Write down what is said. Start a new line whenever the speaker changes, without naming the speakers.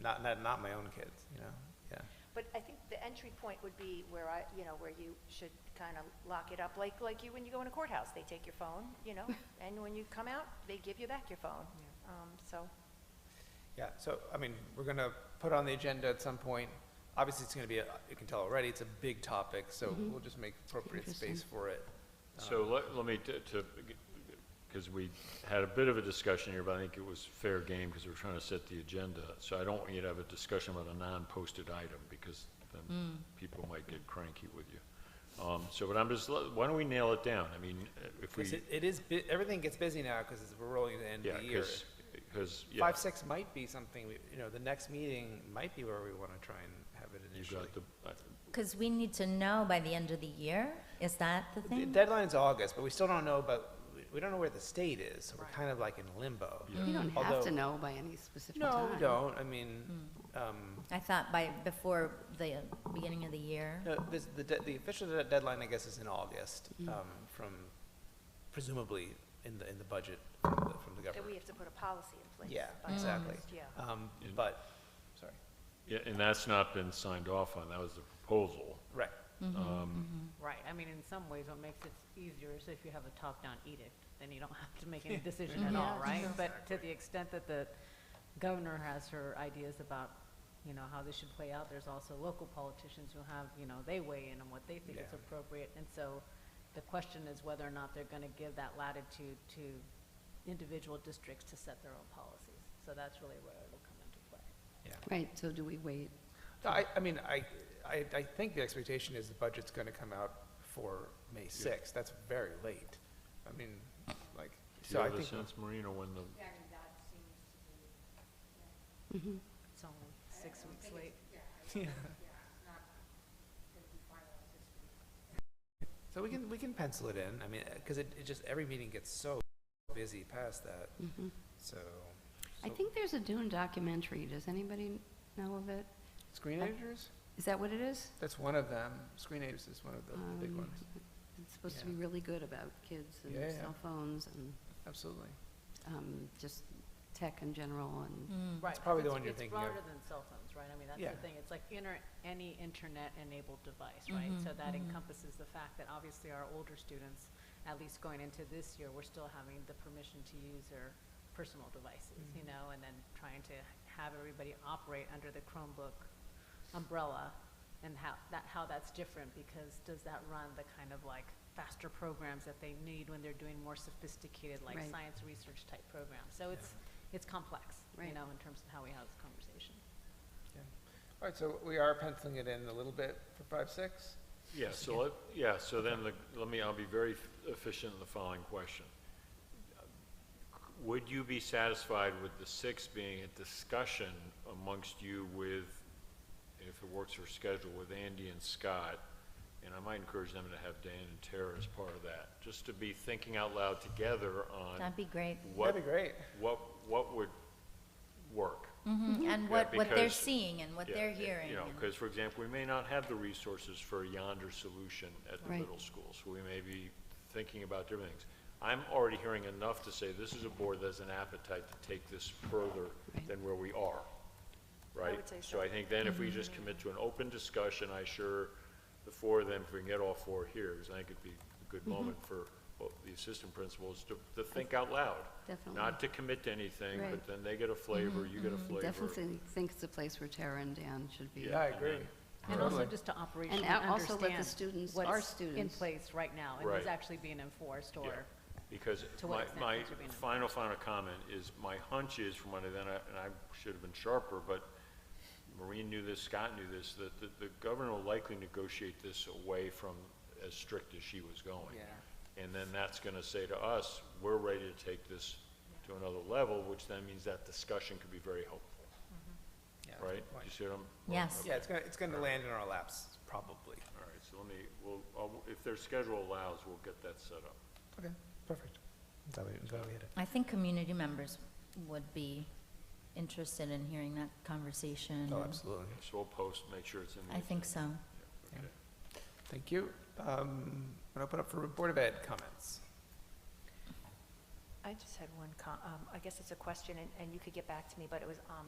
not, not, not my own kids, you know, yeah.
But I think the entry point would be where I, you know, where you should kind of lock it up, like, like you, when you go in a courthouse, they take your phone, you know, and when you come out, they give you back your phone. Um, so,
Yeah, so, I mean, we're gonna put on the agenda at some point. Obviously, it's gonna be, a you can tell already, it's a big topic, so
Mm-hmm.
we'll just make appropriate space for it.
So let, let me, t- to, because we had a bit of a discussion here, but I think it was fair game because we're trying to set the agenda. So I don't want you to have a discussion about a non-posted item because then people might get cranky with you. Um, so, but I'm just, li- why don't we nail it down? I mean, uh, if we,
Because it, it is, bu- everything gets busy now, because we're rolling to the end
yeah,
of the year.
because, because, yeah,
Five, six might be something, we- you know, the next meeting might be where we wanna try and have it
you
initially.
got the, I-
Because we need to know by the end of the year, is that the
The
thing?
deadline's August, but we still don't know, but we don't know where the state is, so we're kind of like in limbo.
You don't have
Although-
to know by any specific time. Mm.
No, we don't, I mean, um,
I thought by, before the beginning of the year.
No, this, the, de- the official de- deadline, I guess, is in August, um, from, presumably, in the, in the budget from the, from the
that we
government.
have to put a policy in place.
Yeah,
by
exactly.
August, Yeah.
Um,
In-
but, sorry,
yeah, and that's not been signed off on. That was the proposal.
right,
Um,
Right, I mean, in some ways, what makes it easier is if you have a top-down edict, then you don't have to make any decision at all, right? But to the extent that the governor has her ideas about, you know, how this should play out, there's also local politicians who have, you know, they weigh in on what they think is
Yeah.
appropriate. And so the question is whether or not they're gonna give that latitude to individual districts to set their own policies. So that's really where it'll come into play.
yeah.
Right, so do we wait?
No, I, I mean, I, I, I think the expectation is the budget's gonna come out for May sixth, that's very late. I mean, like,
Do
so
you
I
have a
think,
sense, Marina, when the,
It's only six weeks late.
so we can, we can pencil it in, I mean, uh, cause it, it just, every meeting gets so busy past that, so.
I
so-
think there's a Dune documentary. Does anybody know of it?
Screen editors?
Is that what it is?
That's one of them. Screen Apes is one of the big
Um,
ones.
It's supposed to
Yeah.
be really good about kids and
Yeah,
their
yeah.
cell phones and
Absolutely.
um, just tech in general and,
Right.
It's probably the
it's-
one you're
Mm. it's
thinking of.
broader than cell phones, right? I mean, that's
Yeah.
the thing. It's like inter, any internet-enabled device, right? So that encompasses the fact that obviously our older students, at least going into this year, we're still having the permission to use their personal devices, you
Mm-hmm.
know, and then trying to have everybody operate under the Chromebook umbrella and how that, how that's different because does that run the kind of like faster programs that they need when they're doing more sophisticated like
Right.
science research type programs? So it's, it's complex, you
Right.
know, in terms of how we have this conversation.
Yeah. All right, so we are penciling it in a little bit for five, six.
yeah, so let, yeah, so then the, let me, I'll be very efficient in the following question. Would you be satisfied with the six being a discussion amongst you with, if it works for schedule, with Andy and Scott? And I might encourage them to have Dan and Tara as part of that, just to be thinking out loud together on
That'd be great.
what,
That'd be great.
what, what would work.
Mm-hmm. And
Yeah,
what, what they're
because-
seeing and what
Yeah,
they're
it-
hearing.
You know,
and-
because, for example, we may not have the resources for a yonder solution at the
Right.
middle school, so we may be thinking about different things. I'm already hearing enough to say this is a board that has an appetite to take this further
Right.
than where we are, right?
would say
So I think then if
Mm-hmm.
we just commit to an open discussion, I sure, the four of them, if we can get all four here, because I think it'd be a
Mm-hmm.
good moment for both the assistant principals to, to think out loud.
Definitely.
Not to commit to anything,
Mm-hmm.
but
Right. Mm-hmm.
then they get a flavor, you get a flavor.
definitely think it's a place where Tara and Dan should be.
Yeah, I agree.
And also
Totally.
just to operationally
And al- also let the
understand
students- our
what's in
students-
place right now and
Right.
is actually being enforced
Yeah,
or
Because
To what
my,
extent
my
things are being
final, final comment is, my hunch is from what I, then I, and I should have been sharper, but Maureen knew this, Scott knew this, that the, the governor will likely negotiate this away from as strict as she was going.
Yeah.
And then that's gonna say to us, we're ready to take this to another level, which then means that discussion could be very helpful,
Yeah, that's a
right?
good point.
You see what I'm?
Yes.
Yeah, it's gonna, it's gonna land in our laps, probably.
All right, so let me, we'll, I'll- if their schedule allows, we'll get that set up.
Okay, perfect. Glad we, glad we hit it.
I think community members would be interested in hearing that conversation.
Oh,
and-
absolutely.
So we'll post, make sure it's in the.
I think so.
Yeah, okay.
Thank you. Um, gonna open up for Board of Ed comments.
I just had one com, um, I guess it's a question, and, and you could get back to me, but it was, um,